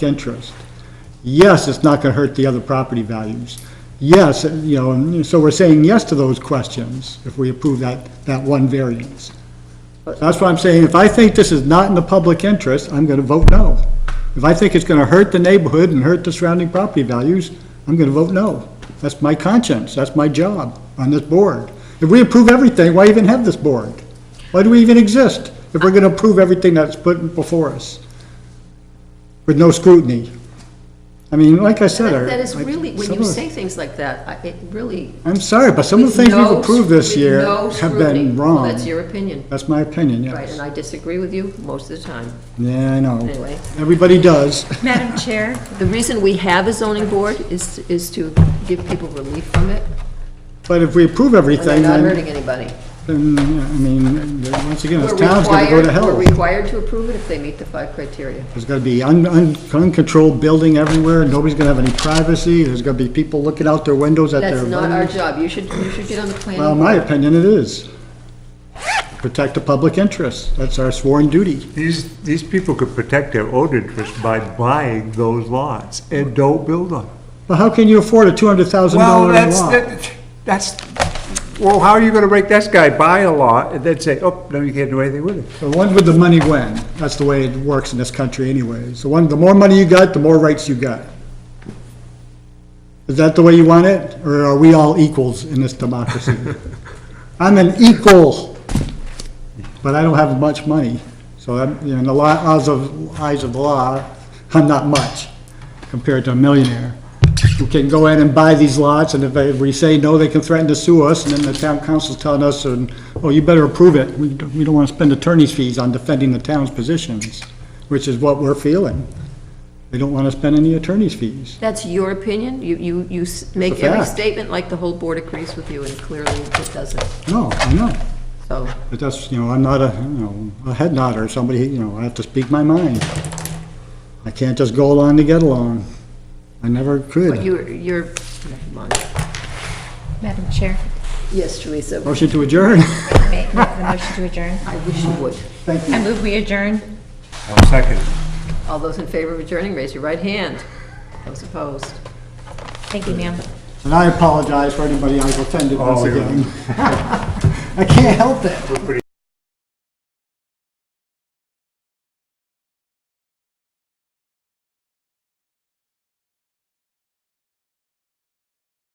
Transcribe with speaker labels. Speaker 1: interest. Yes, it's not going to hurt the other property values. Yes, you know, and so we're saying yes to those questions if we approve that, that one variance. That's what I'm saying, if I think this is not in the public interest, I'm going to vote no. If I think it's going to hurt the neighborhood and hurt the surrounding property values, I'm going to vote no. That's my conscience, that's my job on this board. If we approve everything, why even have this board? Why do we even exist if we're going to approve everything that's put before us with no scrutiny? I mean, like I said, I...
Speaker 2: That is really, when
Speaker 1: some
Speaker 2: you
Speaker 1: of the-
Speaker 2: say things like that, I- it really.
Speaker 1: I'm sorry, but some of the things
Speaker 2: with
Speaker 1: we've
Speaker 2: no-
Speaker 1: approved this
Speaker 2: with
Speaker 1: year
Speaker 2: no
Speaker 1: have
Speaker 2: scrutiny.
Speaker 1: been
Speaker 2: Well,
Speaker 1: wrong.
Speaker 2: That's your opinion,
Speaker 1: That's my opinion,
Speaker 2: right,
Speaker 1: yes.
Speaker 2: and I disagree with you most of the time.
Speaker 1: Yeah, I know.
Speaker 2: Anyway.
Speaker 1: Everybody does.
Speaker 3: Madam Chair,
Speaker 2: The reason we have a zoning board is, is to give people relief from it,
Speaker 1: But if we approve
Speaker 2: when they're
Speaker 1: everything,
Speaker 2: not
Speaker 1: then,
Speaker 2: hurting anybody.
Speaker 1: then, yeah, I mean, then once again, this
Speaker 2: We're
Speaker 1: town's gonna go
Speaker 2: required,
Speaker 1: to
Speaker 2: we're
Speaker 1: hell.
Speaker 2: required to approve it if they meet the five criteria.
Speaker 1: There's gonna be un- un- uncontrolled building everywhere, nobody's gonna have any privacy, there's gonna be people looking out their windows at their...
Speaker 2: That's not our
Speaker 1: buildings.
Speaker 2: job, you should, you should get on the planning.
Speaker 1: Well, in my
Speaker 2: board.
Speaker 1: opinion, it is. Protect the public interest, that's our sworn duty.
Speaker 4: These, these people could protect their own interest by buying those lots and don't build on. them.
Speaker 1: But how can you afford a $200,000
Speaker 4: Well, that's,
Speaker 1: lot?
Speaker 4: that- that's, well, how are you gonna make this guy buy a lot and then say, oh, no, you can't do anything with it?
Speaker 1: The one with the money when, that's the way it works in this country anyways. The one, the more money you got, the more rights you got. Is that the way you want it, or are we all equals in this democracy? I'm an equal, but I don't have much money, so I'm, you know, in the law- eyes of, eyes of the law, I'm not much compared to a millionaire who can go in and buy these lots, and if they- if we say no, they can threaten to sue us, and then the town council's telling us, and, oh, you better approve it, we, don't- we don't wanna spend attorney's fees on defending the town's positions, which is what we're feeling. They don't wanna spend any attorney's fees.
Speaker 2: That's your opinion, you, you, you s- make
Speaker 1: a
Speaker 2: every
Speaker 1: fact.
Speaker 2: statement like the whole board agrees with you, and clearly it doesn't,
Speaker 1: No, I know.
Speaker 2: so.
Speaker 1: But that's, you know, I'm not a, you know, a head nodder, somebody, you know, I have to speak my mind. I can't just go along to get along. I never
Speaker 2: But
Speaker 1: could.
Speaker 2: you're, you're, never mind.
Speaker 3: Madam Chair,
Speaker 2: Yes, Teresa,
Speaker 1: Motion to adjourn.
Speaker 3: may I make the motion to adjourn?
Speaker 2: I wish you would.
Speaker 1: Thank you.
Speaker 3: I move we adjourn.
Speaker 4: I'll second it.
Speaker 2: All those in favor of adjourning, raise your right hand. Those opposed?
Speaker 3: Thank you, ma'am.
Speaker 1: And I apologize for anybody I've offended once
Speaker 4: Oh, you're-
Speaker 1: again. I can't help it.
Speaker 4: We're pretty